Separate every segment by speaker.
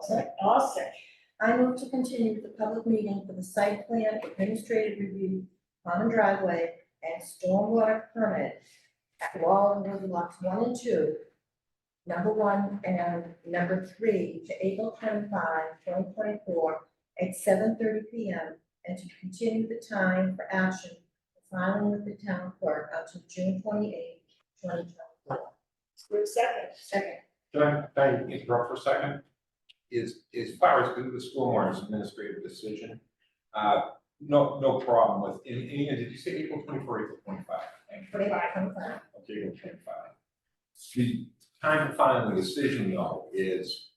Speaker 1: Second.
Speaker 2: I'll second.
Speaker 1: I move to continue the public meeting for the site plan administrative review, common driveway, and stormwater permit at Wallingwood lots one and two, number one and number three, to April 25, 2024, at seven thirty P M, and to continue the time for action filing with the town clerk until June twenty eighth, twenty twenty four.
Speaker 2: We're second.
Speaker 1: Second.
Speaker 3: Can I, can I interrupt for a second? Is, as far as the, the school board's administrative decision, uh, no, no problem with, and, and again, did you say April twenty-four, April twenty-five? Thank you.
Speaker 1: Twenty-five, twenty-five.
Speaker 3: Okay, April twenty-five. The time to filing the decision though is,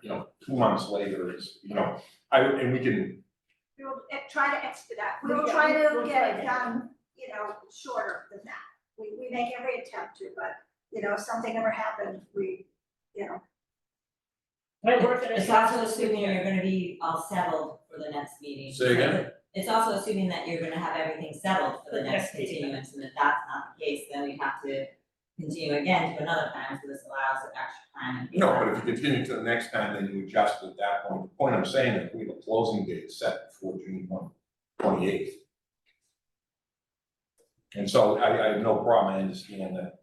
Speaker 3: you know, two months later is, you know, I, and we can,
Speaker 4: We will eh, try to expedite, we will
Speaker 2: Yeah,
Speaker 4: try
Speaker 2: we'll
Speaker 4: to
Speaker 2: try
Speaker 4: get
Speaker 2: to.
Speaker 4: it done, you know, shorter than that. We, we make every attempt to, but, you know, if something ever happened, we, you know,
Speaker 2: My work in a.
Speaker 5: It's also assuming you're gonna be all settled for the next meeting.
Speaker 3: say again,
Speaker 5: It's also assuming that you're gonna have everything settled for the next
Speaker 2: Okay.
Speaker 5: continuance, and if that's not the case, then we have to continue again to another time, so this allows an extra time.
Speaker 3: no, but if you continue to the next time, then you adjust at that point. The point I'm saying is we have a closing date set before June one, twenty-eighth. And so I, I have no problem, I understand that,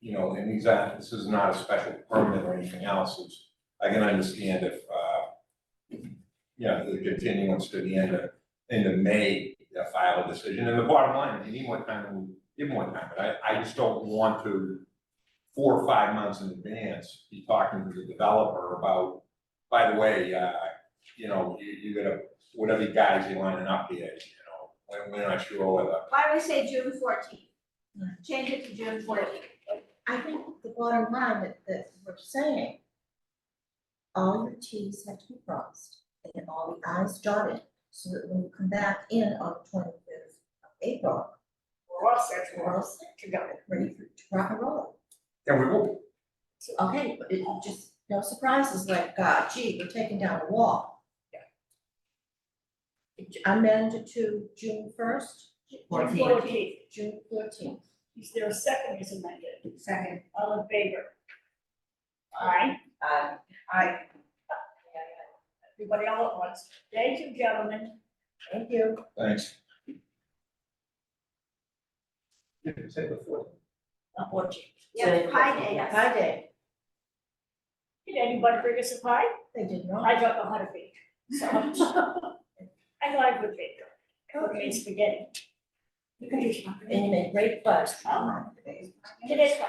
Speaker 3: you know, and these, aren't- this is not a special permit or anything else, it's, I can understand if, uh, you know, the continuance to the end of, end of May, uh, file a decision, and the bottom line, you need more time, you give more time, but I, I just don't want to four or five months in advance, be talking to the developer about, by the way, uh, you know, you, you gotta, whatever you guys you lining up here, you know, we're, we're not sure whether
Speaker 4: why don't we say June fourteenth?
Speaker 2: Hmm.
Speaker 4: Change it to June fourteenth.
Speaker 1: I think the bottom line that, that we're saying, all the Ts have to be crossed and all the Is dotted, so that when we come back in on the twenty-fifth of April,
Speaker 2: We're all set.
Speaker 1: we're all set,
Speaker 2: To go.
Speaker 1: ready for to rock and roll.
Speaker 3: Yeah, we will.
Speaker 1: Okay, but it just, no surprises like, God, gee, we're taking down a wall. Amend it to June first,
Speaker 2: Fourteen.
Speaker 1: June fourteenth.
Speaker 2: Is there a second is amended?
Speaker 4: Second.
Speaker 2: All in favor? Aye.
Speaker 1: Uh,
Speaker 2: Aye. Everybody all at once. Thank you, gentlemen.
Speaker 1: thank you.
Speaker 3: Thanks. Did you say before?
Speaker 2: I'm watching.
Speaker 4: Yeah, Pi Day, yes.
Speaker 1: Hi, Dave.
Speaker 2: Did anybody bring us a pie?
Speaker 1: They did not.
Speaker 2: I don't know how to bake. so. I know I could bake. Cooking spaghetti. You can do
Speaker 1: And you made great fuss.
Speaker 2: Today's fun.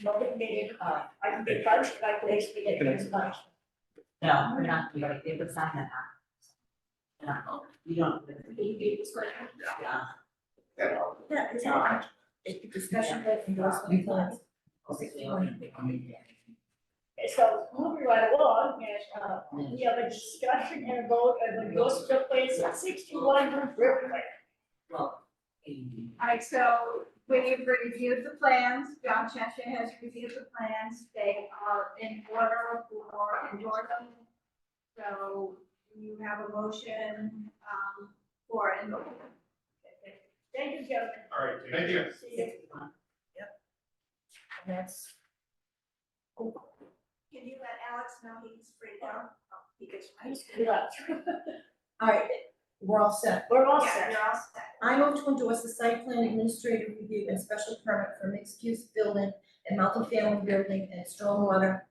Speaker 2: Nobody made it.
Speaker 5: Uh,
Speaker 2: I can be punch, but I can make spaghetti as much.
Speaker 5: No, we're not, we already did with sign that up. No, you don't. Yeah.
Speaker 1: Yeah, it's all right. It's the discussion that endorsement funds.
Speaker 5: Obviously, we're gonna be coming in.
Speaker 2: So moving right along, yes, uh, we have a discussion uh, and a vote of the ghost of place at sixty-one River Lake.
Speaker 5: Well. mm.
Speaker 4: All right, so we've reviewed the plans, John Cheshire has reviewed the plans, they are in order for endorsement. So you have a motion, um, for endorsement.
Speaker 2: Thank you, gentlemen.
Speaker 3: All right, thank you.
Speaker 2: See you.
Speaker 1: And that's,
Speaker 4: Can you let Alex know he's free now? Oh, He gets right.
Speaker 2: Good luck.
Speaker 1: all right, we're all set.
Speaker 2: We're all
Speaker 4: Yeah,
Speaker 2: set.
Speaker 4: you're all set.
Speaker 1: I move to endorse the site plan administrative review and special permit for mixed-use building and multifamily building and stormwater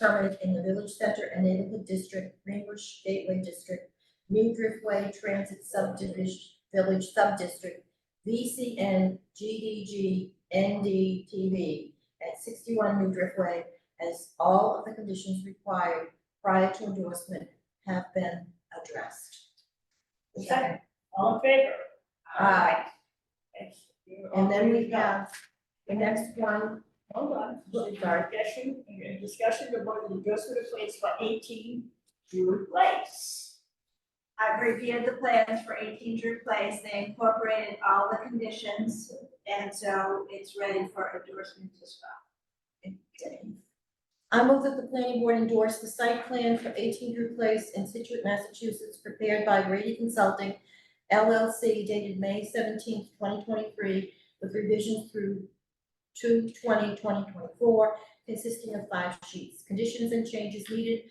Speaker 1: permit in the village center and neighborhood district, Greenbush Gateway District, New Driftway Transit Subdivision, Village Subdistrict, VCN GDG NDTV at sixty-one New Driftway, as all of the conditions required prior to endorsement have been addressed.
Speaker 2: Second. All in favor?
Speaker 1: Aye.
Speaker 2: Thank you.
Speaker 1: And then we have the next one,
Speaker 2: Hold on,
Speaker 1: Look, sorry.
Speaker 2: discussion, okay, discussion about the adjustment of place for eighteen Drew Place.
Speaker 4: I've reviewed the plans for eighteen Drew Place, they incorporated all the conditions, and so it's ready for endorsement as well.
Speaker 1: I move that the planning board endorse the site plan for eighteen Drew Place in Situate, Massachusetts, prepared by Grady Consulting LLC dated May seventeenth, twenty twenty-three, with revisions through 2/20/2024, consisting of five sheets. Conditions and changes needed